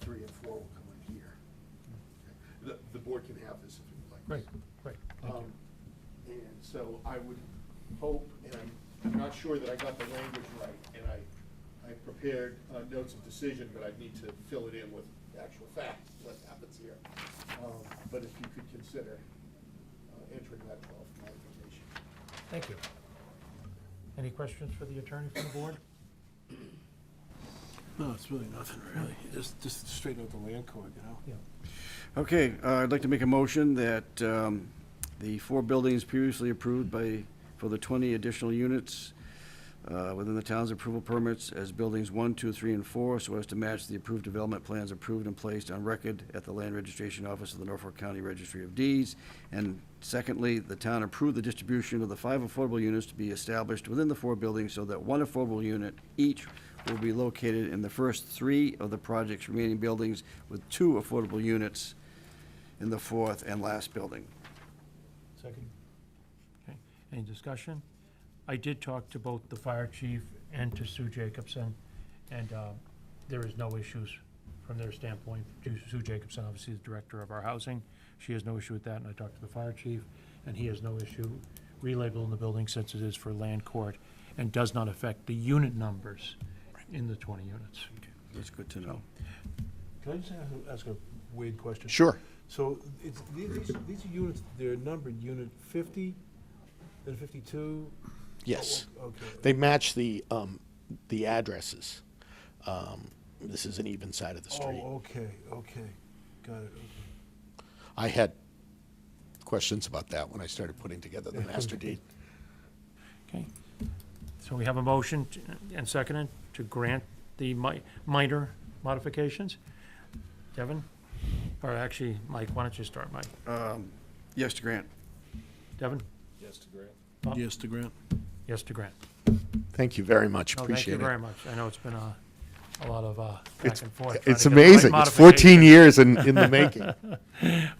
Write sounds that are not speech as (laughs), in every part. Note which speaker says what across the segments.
Speaker 1: three and four will come in here. Okay. The, the board can have this if you'd like.
Speaker 2: Great, great, thank you.
Speaker 1: Um, And so I would hope, and I'm- I'm not sure that I got the language right, and I, I prepared uh, notes of decision, but I'd need to fill it in with actual facts, what happens here. Um, But if you could consider uh, entering that twelve modification.
Speaker 2: Thank you. Any questions for the attorney from the board?
Speaker 3: No, it's really nothing, really. Just, just straighten out the land court, you know?
Speaker 2: Yeah.
Speaker 4: Okay, uh, I'd like to make a motion that um, the four buildings previously approved by, for the 20 additional units uh, within the town's approval permits as buildings one, two, three, and 4, so as to match the approved development plans approved and placed on record at the Land Registration Office of the Norfolk County Registry of Deeds. And secondly, the town approve the distribution of the five affordable units to be established within the four buildings so that one affordable unit each will be located in the first three of the project's remaining buildings, with two affordable units in the fourth and last building.
Speaker 2: Second. Okay, any discussion? I did talk to both the fire chief and to Sue Jacobson, and uh, there is no issues from their standpoint. Ju- Sue Jacobson, obviously, is director of our housing. She has no issue with that, and I talked to the fire chief, and he has no issue relabeling the building since it is for land court and does not affect the unit numbers in the 20 units.
Speaker 4: That's good to know.
Speaker 3: Can I just a- ask a weird question?
Speaker 5: Sure.
Speaker 3: So it's, these, these- these are units, they're numbered, unit fifty, then fifty-two? Oh,
Speaker 5: Yes.
Speaker 3: Okay.
Speaker 5: They match the, um, the addresses. Um, this is an even side of the street.
Speaker 3: Oh, okay, okay. Got it, okay.
Speaker 5: I had questions about that when I started putting together the master deed.
Speaker 2: Okay, so we have a motion t- and seconded to grant the mi- minor modifications. Devin, or actually, Mike, why don't you start, Mike?
Speaker 4: Yes, to grant.
Speaker 2: Devin?
Speaker 3: Yes, to grant.
Speaker 2: Yes to grant.
Speaker 5: Thank you very much.
Speaker 2: No,
Speaker 5: Appreciate
Speaker 2: Thank you very
Speaker 5: it.
Speaker 2: much. I know it's been a, a lot of uh, back
Speaker 5: It's,
Speaker 2: and forth. trying
Speaker 5: it's
Speaker 2: to get the right
Speaker 5: amazing. It's 14
Speaker 2: modification.
Speaker 5: years in, in the making.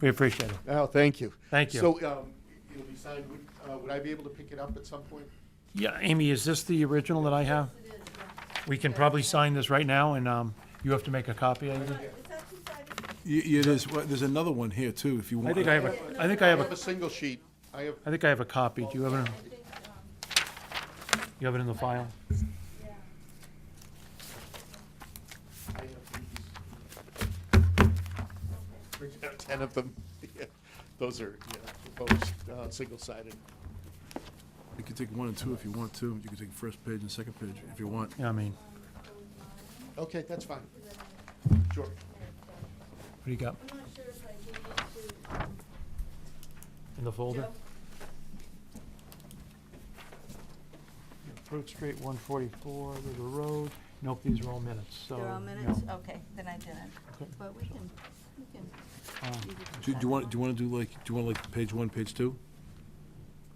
Speaker 2: We appreciate it.
Speaker 5: Oh, thank you.
Speaker 2: Thank you.
Speaker 1: So, um, it'll be signed, would, uh, would I be able to pick it up at some point?
Speaker 2: Yeah, Amy, is this the original that I have? We can probably sign this right now, and um, you have to make a copy. I think.
Speaker 6: Is that two sided?
Speaker 7: Y- Yeah, there's, well, there's another one here too, if you
Speaker 2: I
Speaker 7: want.
Speaker 2: think I have a, I think I have
Speaker 1: I have
Speaker 2: a,
Speaker 1: a single sheet, I have,
Speaker 2: I think I have a copy. Do you have it,
Speaker 6: I think, um,
Speaker 2: you have it in the file?
Speaker 6: yeah.
Speaker 1: I have these. Brings out ten of them, (laughs) Yeah. those are, yeah, proposed, uh, single-sided.
Speaker 7: You can take one and two if you want to. You can take first page and second page if you want.
Speaker 2: Yeah, I mean,
Speaker 1: Okay, that's fine. Sure.
Speaker 2: what do you got
Speaker 6: I'm not sure if I gave it to, um,
Speaker 2: in the folder?
Speaker 6: Joe.
Speaker 2: Fruit Street, one forty-four, River Road. Nope, these are all minutes, so.
Speaker 6: They're all minutes? Okay, then I didn't.
Speaker 2: Okay.
Speaker 6: But we can, we can.
Speaker 2: Um,
Speaker 6: you
Speaker 7: Do
Speaker 6: can
Speaker 7: do
Speaker 6: decide.
Speaker 7: you want, do you want to do like, do you want like page one, page two?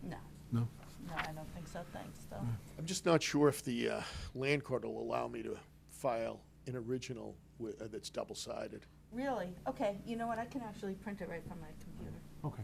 Speaker 6: No,
Speaker 7: No?
Speaker 6: no, I don't think so. Thanks, though.
Speaker 2: Mm.
Speaker 5: I'm just not sure if the uh, land court will allow me to file an original wi- uh, that's double-sided.
Speaker 6: Really? Okay, you know what? I can actually print it right from my computer.
Speaker 2: Okay.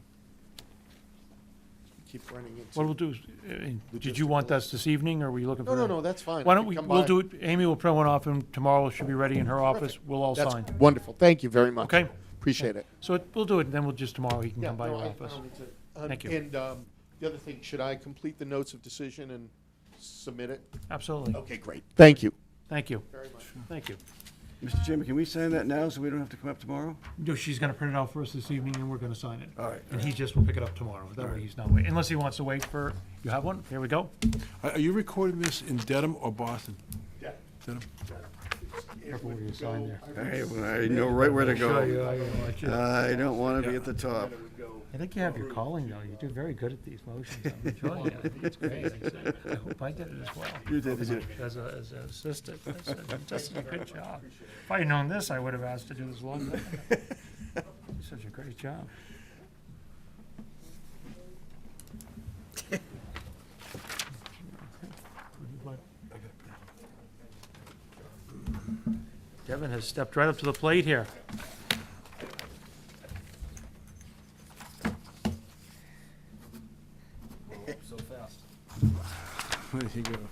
Speaker 5: Keep running into.
Speaker 2: What we'll do is, uh, did you want this this evening, or were you looking
Speaker 5: No,
Speaker 2: for?
Speaker 5: no, no, that's fine.
Speaker 2: Why
Speaker 5: I
Speaker 2: don't
Speaker 5: can
Speaker 2: we,
Speaker 5: come
Speaker 2: we'll
Speaker 5: by.
Speaker 2: do it, Amy will print one off, and tomorrow it should be ready in her office. We'll all
Speaker 5: That's
Speaker 2: sign.
Speaker 5: wonderful. Thank you very much.
Speaker 2: Okay.
Speaker 5: Appreciate it.
Speaker 2: So it- we'll do it, and then we'll just, tomorrow he can
Speaker 1: Yeah,
Speaker 2: come by
Speaker 1: no,
Speaker 2: your
Speaker 1: I- I
Speaker 2: office.
Speaker 1: don't need to- um,
Speaker 2: Thank you.
Speaker 1: And um, the other thing, should I complete the notes of decision and submit it?
Speaker 2: Absolutely.
Speaker 5: Okay, great. Thank you.
Speaker 2: Thank you,
Speaker 1: Very much.
Speaker 2: thank you.
Speaker 4: Mr. Chairman, can we sign that now so we don't have to come up tomorrow?
Speaker 2: No, she's gonna print it out for us this evening, and we're gonna sign it.
Speaker 4: All right.
Speaker 2: And he just will pick it up tomorrow. That way he's not waiting, unless he wants to wait for, you have one? Here we go.
Speaker 7: Are are you recording this in Dedham or Boston?
Speaker 1: Yeah.
Speaker 7: Dedham?
Speaker 2: Careful where you sign there.
Speaker 4: I I know right where to go. I don't want to be at the top.
Speaker 2: I think you have your calling, though. You do very good at these motions. (laughs) I'm enjoying it. I think it's great. I hope I did it as well.
Speaker 4: You did it.
Speaker 2: As a, as an assistant, that's a- that's a good job. If I had known this, I would have asked to do this a long
Speaker 4: (laughs)
Speaker 2: time. ago. You did Such a great job. Devin has stepped right up to the plate here.
Speaker 7: (laughs) There you go.